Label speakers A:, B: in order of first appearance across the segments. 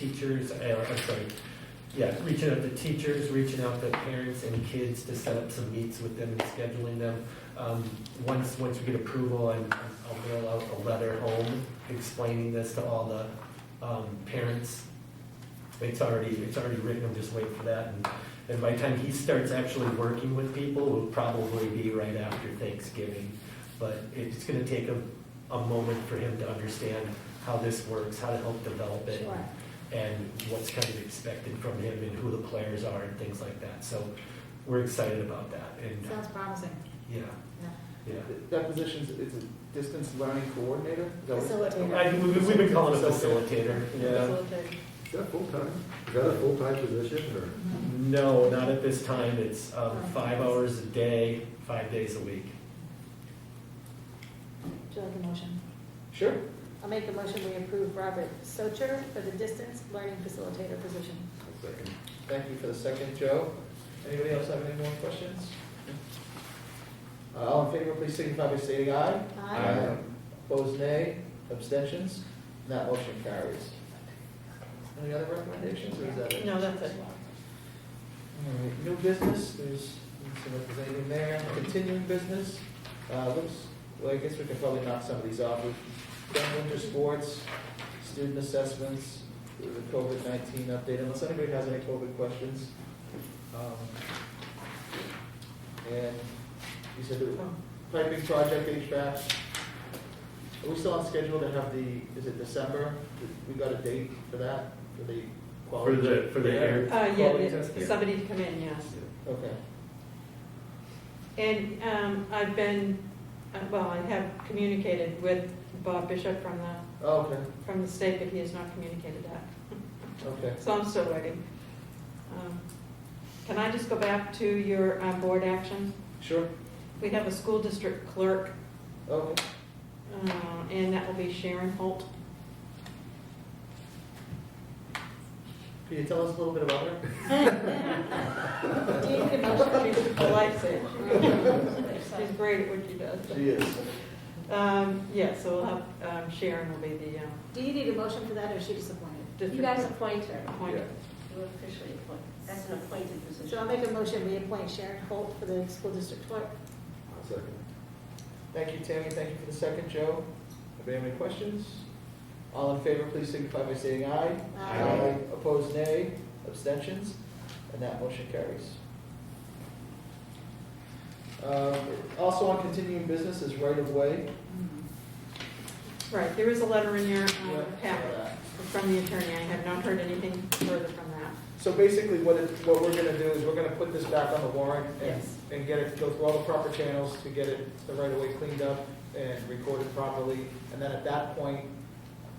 A: teachers, uh, I'm sorry, yeah, reaching out to teachers, reaching out to parents and kids to set up some meets with them and scheduling them. Um, Once, once we get approval, I'm- I'll mail out a letter home explaining this to all the um, parents. It's already, it's already written, I'm just waiting for that. And- And by the time he starts actually working with people, will probably be right after Thanksgiving. But it's gonna take a, a moment for him to understand how this works, how to help develop it
B: Sure.
A: and what's kind of expected from him and who the players are and things like that. So we're excited about that and, uh,
B: Sounds promising.
A: yeah,
B: Yeah.
A: yeah.
C: That position's, it's a distance learning coordinator? Is that what-
A: I,
B: Facilitator.
A: we- we've been calling it facilitator, yeah.
B: Facilitator.
D: Is that full-time? Is that a full-time position or?
B: Mhm.
A: No, not at this time. It's, um, five hours a day, five days a week.
B: Do you like a motion?
C: Sure.
B: I'll make a motion, we approve Robert Socher for the distance learning facilitator position.
D: Second.
C: Thank you for the second, Joe. Anybody else have any more questions? Uh, All in favor, please signify by stating aye.
B: Aye.
C: Opposed, nay. Abstentions? That motion carries. Any other recommendations, or is that it?
E: No, that's it.
C: All right, new business, there's, some representative there, continuing business, uh, looks, well, I guess we can probably knock some of these off. We've done winter sports, student assessments, the COVID nineteen update, unless anybody has any COVID questions. Um, And you said the piping project HVAC, are we still on schedule to have the, is it December? We got a date for that, for the
A: For
C: quality?
A: the, for the air.
E: Uh, yeah,
A: quality
E: the-
A: testing?
E: somebody to come in, yes.
C: Okay.
E: And um, I've been, uh, well, I have communicated with Bob Bishop from the,
C: Oh, Okay,
E: from the state, but he has not communicated that.
C: okay.
E: So I'm still waiting. Um, Can I just go back to your uh, board action?
C: Sure, Oh,
E: We have a school district clerk,
C: okay.
E: uh, and that will be Sharon Holt.
C: Can you tell us a little bit about her?
E: Do you need a motion? She's a lifesaver. She's great at what she does.
C: is.
E: Um, Yeah, so we'll have, um, Sharon will be the um,
B: Do you need a motion for that, or is she disappointed?
F: You
E: district
F: guys appoint her.
E: appointed.
F: You officially appoint. That's an appointed
B: So I'll
F: position.
B: make a motion, we appoint Sharon Holt for the school district clerk.
D: I'll second.
C: Thank you, Tammy, thank you for the second, Joe. Anybody have any questions? All in favor, please signify by saying aye.
B: Aye.
C: Opposed, nay. Abstentions? And that motion carries. Um, Also on continuing business is right-of-way.
E: Right, there is a letter in your um,
C: Yeah, for
E: packet
C: that.
E: from the attorney. I have not heard anything further from that.
C: So basically, what it, what we're gonna do is we're gonna put this back on the warrant and,
E: Yes.
C: and get it, go through all the proper channels to get it, the right of way cleaned up and recorded properly. And then at that point,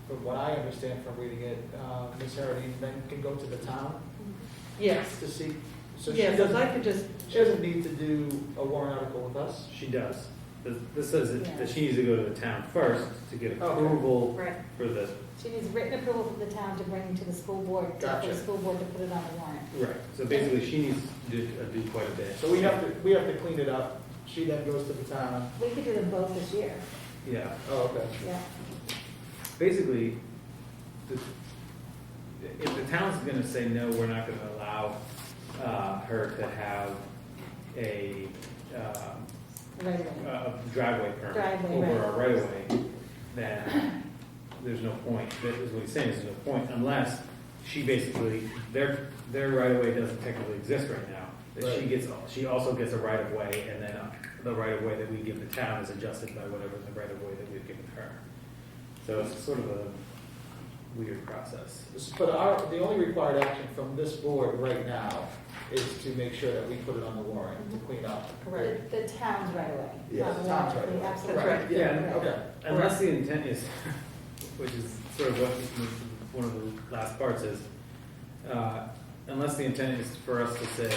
C: from what I understand from reading it, uh, Ms. Harity then can go to the town
E: Yes,
C: to see. So she
E: yes, I'd
C: doesn't,
E: like to just,
C: she doesn't need to do a warrant article with us.
G: She does. This- This says that that she needs to go to the town first to get
C: Okay.
G: approval
E: right,
G: for the,
B: She needs written approval from the town to bring to the school board, to- for
C: Gotcha.
B: the school board to put it on the warrant.
G: right, so basically she needs to do uh, do quite a bit.
C: So we have to, we have to clean it up. She then goes to the town.
B: We could do them both this year,
G: Yeah,
C: Oh, okay.
B: yeah.
G: basically, the- if the town's gonna say, no, we're not gonna allow uh, her to have a um,
B: Right away.
G: a uh, driveway permit
B: Driveway,
G: over
B: right.
G: our right of way, then there's no point, that is what he's saying, there's no point unless she basically, their, their right of way doesn't technically exist right now. That she
C: Right.
G: gets, she also gets a right of way and then uh, the right of way that we give the town is adjusted by whatever the right of way that we've given her. So it's sort of a weird process.
C: But our, the only required action from this board right now is to make sure that we put it on the warrant to clean up.
E: correct.
B: The the town's right away.
D: Yeah,
B: On
C: the
B: the
C: town's
B: warrant,
C: right
B: we
C: away.
B: absolutely-
E: That's right.
G: Yeah,
C: Okay.
G: Unless the intent is, which is sort of what, one of the last parts is, uh, unless the intent is for us to say,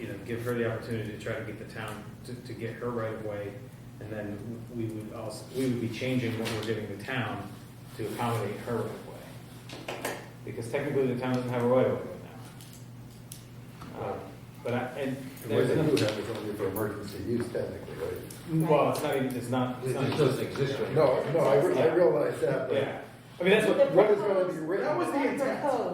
G: you know, give her the opportunity to try to get the town, to, to get her right of way, and then we would also, we would be changing what we're giving the town to accommodate her right of way. Because technically, the town doesn't have a right of way right now. Uh, But I, and
D: And what
G: there's
D: they
G: another,
D: do have is only for emergency use technically, right?
G: well, it's not, even- it's not. it's not-
D: exist No, no, I re- I realize that, but
G: Yeah, I mean, that's what,
B: The
D: what is going to be
B: proposed-
D: written?
C: That was the
B: the
C: intent.
B: proposed-